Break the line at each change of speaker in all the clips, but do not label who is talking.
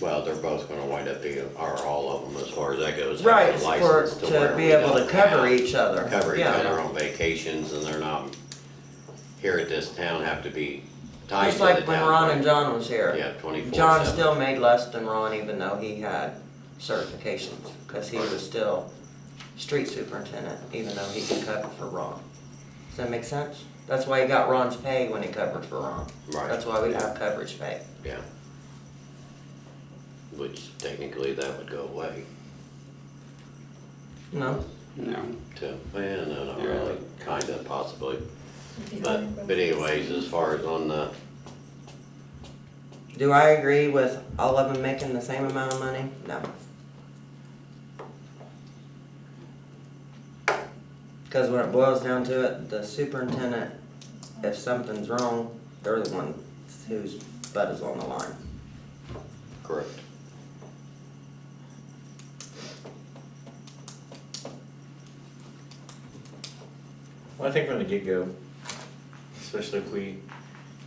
Well, they're both gonna wind up being, or all of them as far as that goes. have a
Right, for,
license
to
where
be
we
able to
don't
cover
have-
each other.
Cover each
Yeah.
other on vacations and they're not, here at this town have to be tied to
Just
the town.
like when Ron and John was here.
Yeah, twenty-four seven.
John still made less than Ron even though he had certifications, cause he was still street superintendent, even though he could cover for Ron. Does that make sense? That's why he got Ron's pay when he covered for Ron.
Right.
That's why we have coverage pay.
Yeah. Which technically that would go away
No,
No.
too. Well, no, not
Yeah.
really, uh, kinda possibly. But, but anyways, as far as on the,
do I agree with all of them making the same amount of money? No. Cause when it boils down to it, the superintendent, if something's wrong, they're the one whose butt is on the line.
correct.
Well, I think from the get-go, especially if we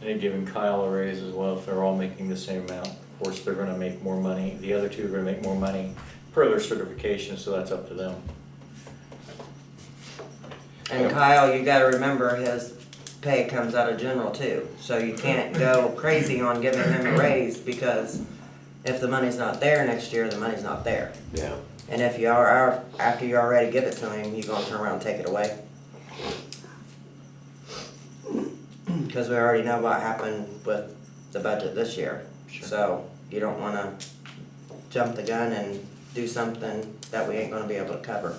ended giving Kyle a raise as well, if they're all making the same amount, of course, they're gonna make more money. The other two are gonna make more money per their certification, so that's up to them.
And Kyle, you gotta remember his pay comes out of general too, so you can't go crazy on giving him a raise because if the money's not there next year, the money's not there.
Yeah,
And if you are, are- after you already give it to him, you gonna turn around and take it away. Cause we already know what happened with the budget this year, so you don't wanna jump the gun and do something that we ain't gonna be able to cover.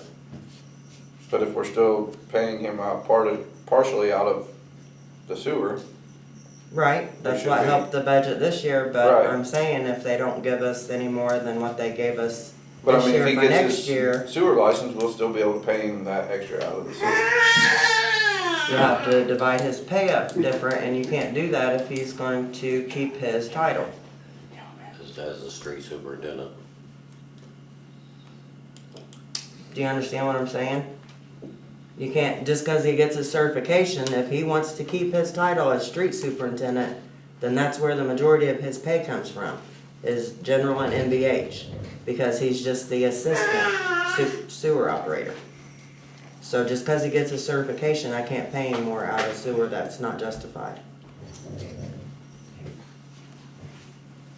But if we're still paying him out part of, partially out of the sewer,
Right, that's
should
what
be.
helped the budget this year, but
Right.
I'm saying if they don't give us any more than what they gave us
but I
this
mean,
year
if he
for next
gets
year,
his sewer license, we'll still be able to pay him that extra out of the sewer.
you have to divide his pay up different, and you can't do that if he's going to keep his title.
as, as the street superintendent.
Do you understand what I'm saying? You can't, just cause he gets his certification, if he wants to keep his title as street superintendent, then that's where the majority of his pay comes from, is general and MBH, because he's just the assistant su- sewer operator. So just cause he gets his certification, I can't pay any more out of sewer, that's not justified.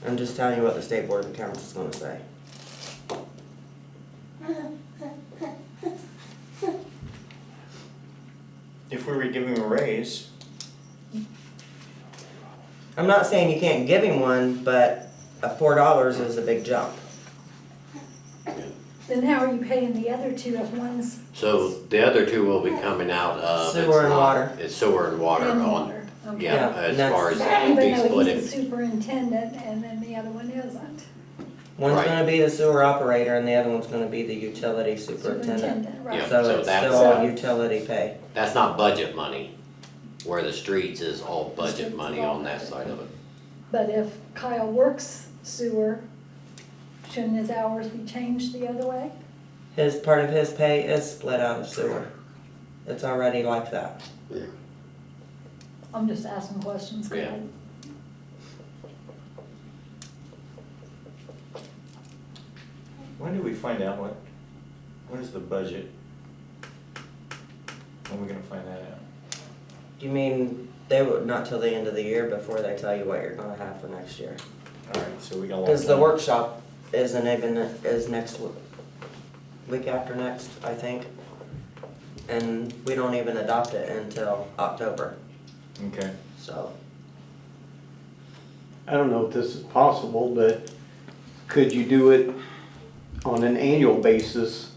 I'm just telling you what the state board of accounts is gonna say.
If we were giving a raise,
I'm not saying you can't give him one, but a four dollars is a big jump.
Then how are you paying the other two if one's
So the other two will be coming out of. it's
Sewer and
not-
water.
It's sewer and water
in
on,
water? Okay.
yeah,
Yeah,
as
that's-
far as
Even
being
though
split
he's the
in.
superintendent and then the other one isn't.
One's
Right.
gonna be the sewer operator and the other one's gonna be the utility superintendent.
Yeah,
Right.
So
so
it's
that's,
still all
uh,
utility pay.
That's not budget money, where the streets is all budget money on that side of it.
But if Kyle works sewer, shouldn't his hours be changed the other way?
His, part of his pay is split out of sewer. It's already like that.
I'm just asking questions. 'cause I-
Yeah.
when do we find out what, what is the budget? When are we gonna find that out?
You mean, they would, not till the end of the year before they tell you what you're gonna have for next year.
Alright, so we got a long
Cause the
time.
workshop isn't even, is next w- week after next, I think. And we don't even adopt it until October,
Okay.
so.
I don't know if this is possible, but could you do it on an annual basis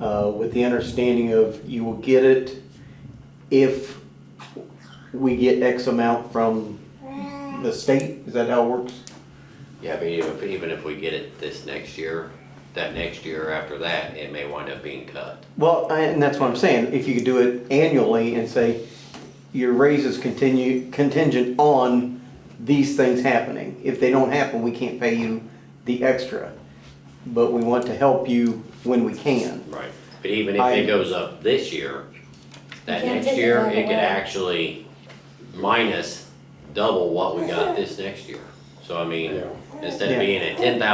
uh, with the understanding of you will get it if we get X amount from the state? Is that how it works?
Yeah, I mean, even if, even if we get it this next year, that next year after that, it may wind up being cut.
Well, I- and that's what I'm saying, if you could do it annually and say, your raises continue contingent on these things happening. If they don't happen, we can't pay you the extra, but we want to help you when we can.
Right. But even if
I-
it goes up this year, that
You can't
next
take it
year,
right
it could
away.
actually minus double what we got this next year. So I mean,
Yeah.
instead of being at ten thousand